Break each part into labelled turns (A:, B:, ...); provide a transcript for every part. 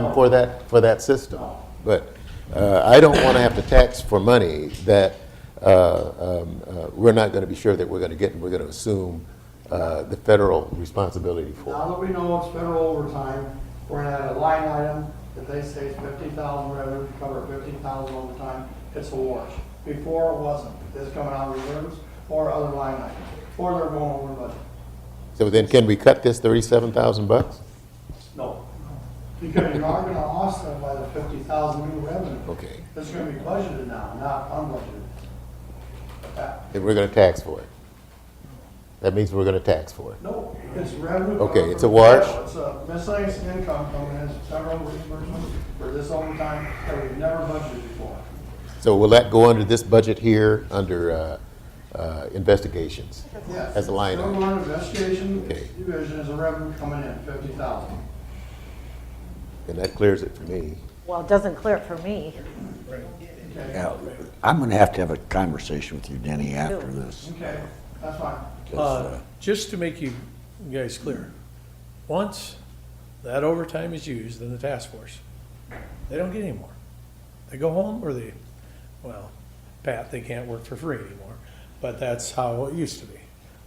A: time for that, for that system. But uh, I don't want to have to tax for money that uh, um, uh, we're not going to be sure that we're going to get, and we're going to assume uh, the federal responsibility for.
B: Now that we know it's federal overtime, we're gonna add a line item that they say is fifty thousand revenue, to cover fifty thousand overtime, it's a wash. Before it wasn't, it's coming out of reserves or other line items, or they're going over budget.
A: So then can we cut this 37,000 bucks?
B: No. Because you are gonna offset by the fifty thousand new revenue.
A: Okay,
B: It's gonna be budgeted now, not unbudgeted. That-
A: then we're going to tax for it. That means we're going to tax for it.
B: No, it's revenue.
A: Okay, it's a wash.
B: It's a miscellaneous income coming in, federal reimbursement for this overtime that we've never budgeted before.
A: So will that go under this budget here, under uh, uh, investigations?
B: Yes.
A: As a line item.
B: Federal Law investigation
A: Okay.
B: division is a revenue coming in, fifty thousand.
A: And that clears it for me.
C: Well, it doesn't clear it for me.
B: Okay,
D: Yeah, I'm gonna have to have a conversation with you, Denny, after this.
B: okay, that's fine.
D: 'cause,
E: Uh,
D: uh,
E: Just to make you guys clear, once that overtime is used in the task force, they don't get any more. They go home or they, well, Pat, they can't work for free anymore, but that's how it used to be.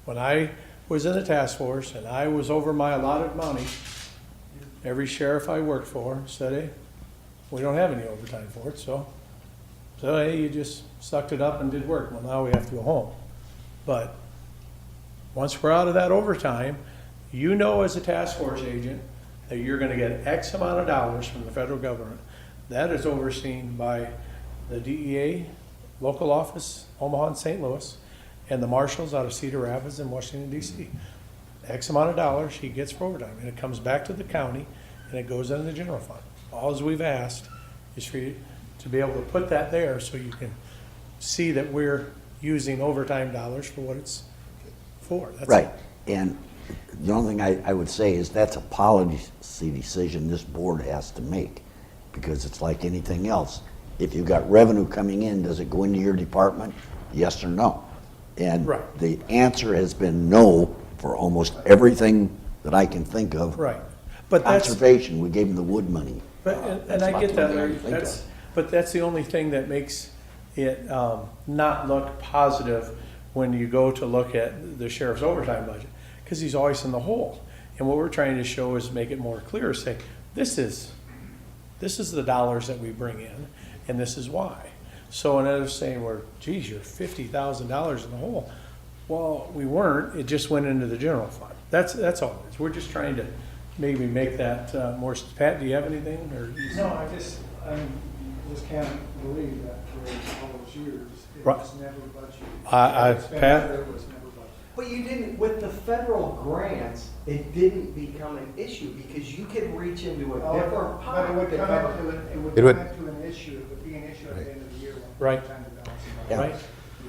E: When I was in the task force and I was over my allotted money, every sheriff I worked for said, hey, we don't have any overtime for it, so, so hey, you just sucked it up and did work. Well, now we have to go home. But once we're out of that overtime, you know as a task force agent that you're gonna get X amount of dollars from the federal government. That is overseen by the DEA, local office, Omaha and St. Louis, and the marshals out of Cedar Rapids in Washington DC. X amount of dollars he gets for overtime, and it comes back to the county, and it goes into the general fund. Alls we've asked is for you to be able to put that there so you can see that we're using overtime dollars for what it's for. That's it.
D: Right, and the only thing I, I would say is that's a policy decision this board has to make, because it's like anything else. If you've got revenue coming in, does it go into your department? Yes or no? And
E: Right.
D: the answer has been no for almost everything that I can think of.
E: Right, but that's,
D: Conservation, we gave them the wood money.
E: but, and-
D: That's
E: and I
D: about
E: get
D: the only
E: that,
D: thing I
E: Larry,
D: can think
E: that's,
D: of.
E: but that's the only thing that makes it, um, not look positive when you go to look at the sheriff's overtime budget, because he's always in the hole. And what we're trying to show is make it more clear, say, this is, this is the dollars that we bring in, and this is why. So instead of saying, we're, geez, you're fifty thousand dollars in the hole, well, we weren't, it just went into the general fund. That's, that's all it is, we're just trying to maybe make that uh, more, Pat, do you have anything, or?
F: No, I just, I just can't believe that for all those years, it
E: Right.
F: was never budgeted.
E: I- I- Pat?
F: Expenditure was never budgeted.
G: But you didn't, with the federal grants, it didn't become an issue because you could reach into a different
F: Oh, But it
G: pot
F: would
G: to
F: come up
G: cover.
F: to, an- it would
A: It would-
F: come up to an issue, it would be an issue at the end of the year. when we
E: Right.
F: time to balance it out.
E: Right,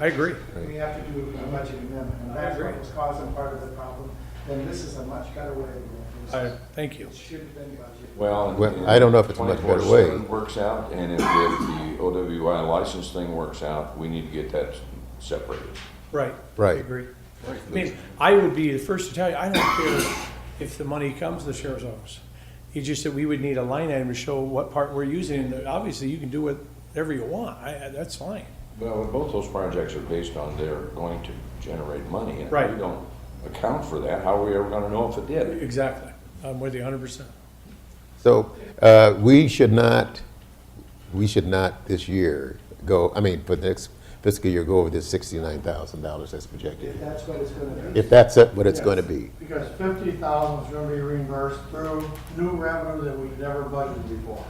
E: I agree.
F: We have to do a budget amendment, and that's what was causing part of the problem, then this is a much better way of doing
E: I,
F: it.
E: thank you.
F: It should have been budgeted.
H: Well.
A: Well,
H: and
A: I don't know if it's a much better way.
H: 24/7 Works out, and if, if the OWI license thing works out, we need to get that separated.
E: Right.
A: Right.
E: I agree. I mean, I would be the first to tell you, I don't care if the money comes to the sheriff's office. It's just that we would need a line item to show what part we're using. And Obviously, you can do whatever you want. I, I- that's fine.
H: Well, both those projects are based on they're going to generate money. and if
E: Right.
H: We don't account for that, how are we ever gonna know if it did?
E: Exactly. I'm with you hundred percent.
A: So uh, we should not, we should not this year go, I mean, for the next fiscal year, go over this $69,000 that's projected,
B: That's what it's gonna be.
A: if that's it, what it's going to be.
B: Because fifty thousand is gonna be reimbursed through new revenue that we've never budgeted before.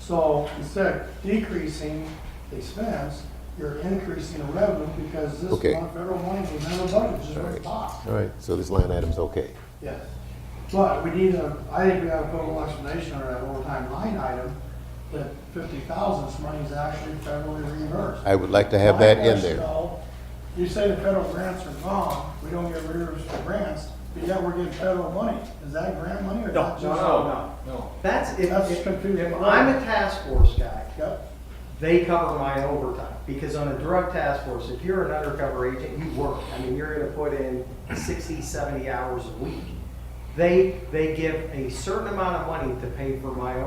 B: So instead of decreasing the expense, you're increasing the revenue because this
A: Okay.
B: one federal money was never budgeted, it's just
A: All
B: went
A: right.
B: pop.
A: All right, so this line item's okay.
B: Yes, but we need a, I think we have a total explanation or that overtime line item, that fifty thousand, this money is actually federally reimbursed.
A: I would like to have that in
B: My question,
A: there.
B: though, You say the federal grants are gone, we don't get reimbursed for grants, but yet we're getting federal money, is that grant money or is that just?
G: no. That's, if,
B: That's
G: if
B: confusing.
G: if I'm a task force guy,
B: Yep,
G: they cover my overtime. Because on a drug task force, if you're an undercover agent, you work. I mean, you're gonna put in 60, 70 hours a week. they, they give a certain amount of money to pay for my